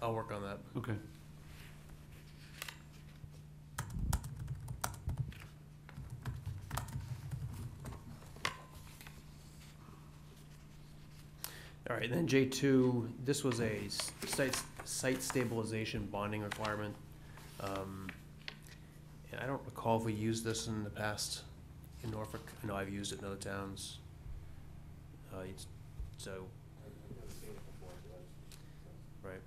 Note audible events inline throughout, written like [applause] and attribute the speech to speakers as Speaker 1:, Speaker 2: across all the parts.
Speaker 1: I'll work on that.
Speaker 2: Okay.
Speaker 1: All right, then J two, this was a s- site, site stabilization bonding requirement. Um, And I don't recall if we used this in the past in Norfolk. I know I've used it in other towns. Uh, it's, so, right.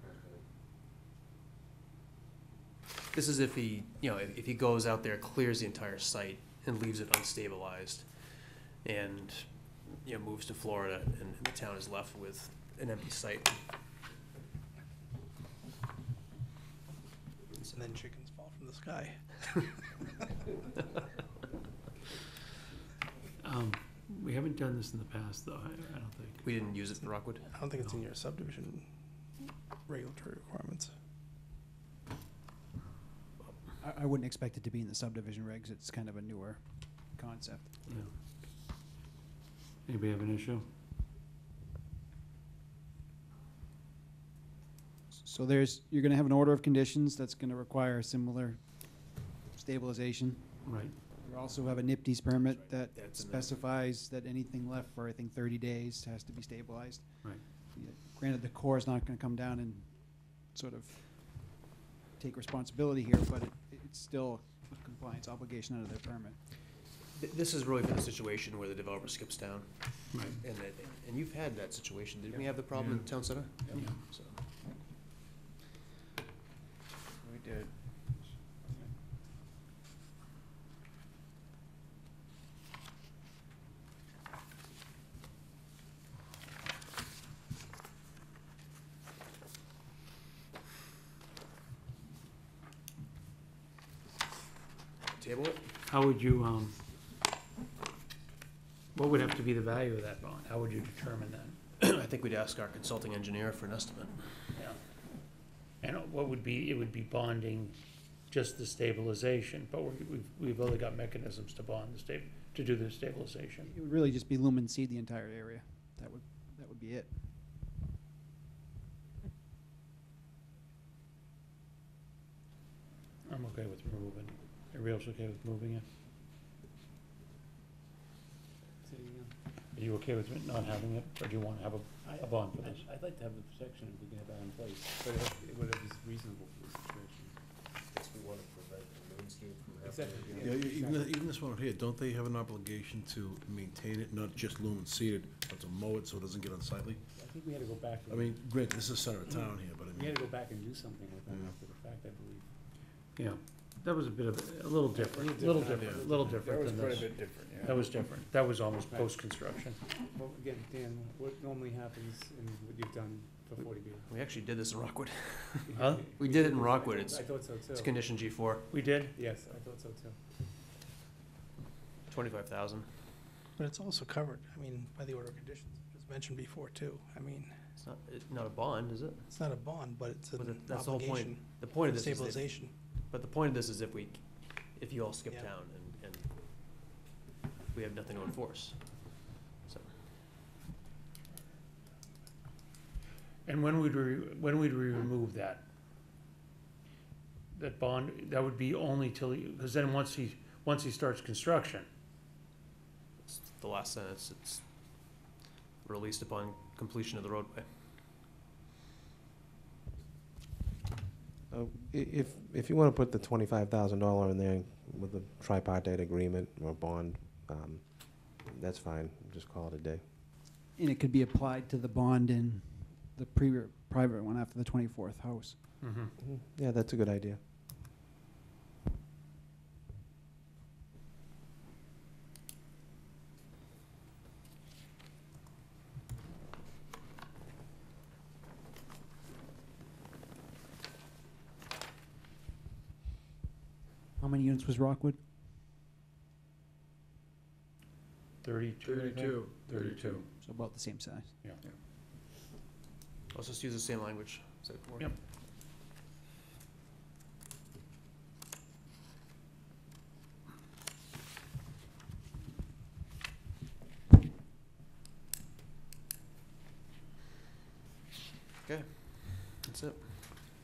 Speaker 1: This is if he, you know, if if he goes out there, clears the entire site and leaves it unstabilized. And you know, moves to Florida and the town is left with an empty site.
Speaker 3: And then chickens fall from the sky.
Speaker 2: Um, we haven't done this in the past, though, I, I don't think.
Speaker 1: We didn't use it in Rockwood.
Speaker 3: I don't think it's in your subdivision regulatory requirements.
Speaker 4: I, I wouldn't expect it to be in the subdivision regs. It's kind of a newer concept.
Speaker 2: Yeah. Anybody have an issue?
Speaker 4: So there's, you're gonna have an order of conditions that's gonna require a similar stabilization.
Speaker 2: Right,
Speaker 4: You also have a NIPD's permit that
Speaker 1: That's in there.
Speaker 4: specifies that anything left for, I think, thirty days has to be stabilized.
Speaker 2: Right.
Speaker 4: Yeah, Granted, the Corps is not gonna come down and sort of take responsibility here, but it, it's still a compliance obligation under their permit.
Speaker 1: Th- This is really for the situation where the developer skips town,
Speaker 2: right.
Speaker 1: and that, and you've had that situation, didn't we have the problem in
Speaker 2: Yeah.
Speaker 1: town center?
Speaker 2: Yeah.
Speaker 1: So,
Speaker 5: We did.
Speaker 1: Table it? [clears throat]
Speaker 2: How would you, um, what would have to be the value of that bond? How would you determine that?
Speaker 1: I think we'd ask our consulting engineer for an estimate.
Speaker 2: And what would be, it would be bonding just the stabilization, but we're- we've, we've only got mechanisms to bond the sta, to do the stabilization.
Speaker 4: It would really just be lumen seed the entire area. That would, that would be it.
Speaker 2: I'm okay with removing, it. everybody else okay with moving it? Are you okay with it not having it, or do you want to have a, a bond for this?
Speaker 5: I'd like to have the protection if we can have that in place, but it- whatever is reasonable for the situation. Exactly, yeah,
Speaker 6: Yeah, e- even,
Speaker 5: exactly.
Speaker 6: th- even this one here, don't they have an obligation to maintain it, not just lumen seeded, but to mow it so it doesn't get unsightly?
Speaker 5: I think we had to go back,
Speaker 6: I
Speaker 5: and-
Speaker 6: mean, granted, this is center of town here, but I
Speaker 5: we
Speaker 6: mean,
Speaker 5: had to go back and do something with that
Speaker 6: Yeah.
Speaker 5: after the fact, I believe.
Speaker 2: Yeah, that was a bit of, a little different, a little different, a little different than this.
Speaker 5: different, yeah.
Speaker 2: That was different, that was almost
Speaker 5: Right.
Speaker 2: post-construction.
Speaker 5: Well, again, Dan, what normally happens in what you've done for forty B?
Speaker 1: We actually did this in Rockwood. [laughs]
Speaker 5: [laughs]
Speaker 2: Huh?
Speaker 1: We did it in Rockwood.
Speaker 5: I
Speaker 1: It's,
Speaker 5: thought so
Speaker 1: it's
Speaker 5: too.
Speaker 1: condition G four,
Speaker 2: We did?
Speaker 5: Yes, I thought so too.
Speaker 1: twenty-five thousand.
Speaker 3: But it's also covered, I mean, by the order of conditions, as mentioned before too. I mean,
Speaker 1: It's not, it's not a bond, is it?
Speaker 3: it's not a bond, but it's
Speaker 1: But
Speaker 3: an
Speaker 1: that- that's the whole point.
Speaker 3: obligation
Speaker 1: The point
Speaker 3: for
Speaker 1: of this is, if-
Speaker 3: stabilization.
Speaker 1: but the point of this is if we, if you all skip
Speaker 3: Yeah.
Speaker 1: town and, and we have nothing to enforce. So,
Speaker 2: And when would we, when would we remove that? That bond, that would be only till, because then once he, once he starts construction,
Speaker 1: It's The last sentence, it's released upon completion of the roadway.
Speaker 7: Uh, i- If, if you want to put the twenty-five thousand dollar in there with a tripartite agreement or bond, um, that's fine, just call it a day.
Speaker 4: And it could be applied to the bond in the previous, private one after the twenty-fourth house.
Speaker 2: mhm,
Speaker 7: Mhm. Yeah, that's a good idea.
Speaker 4: How many units was Rockwood?
Speaker 2: thirty-two, I think?
Speaker 6: thirty-two.
Speaker 2: Thirty-two.
Speaker 4: So about the same size.
Speaker 1: Let's just use the same language. so it works.
Speaker 2: Yep.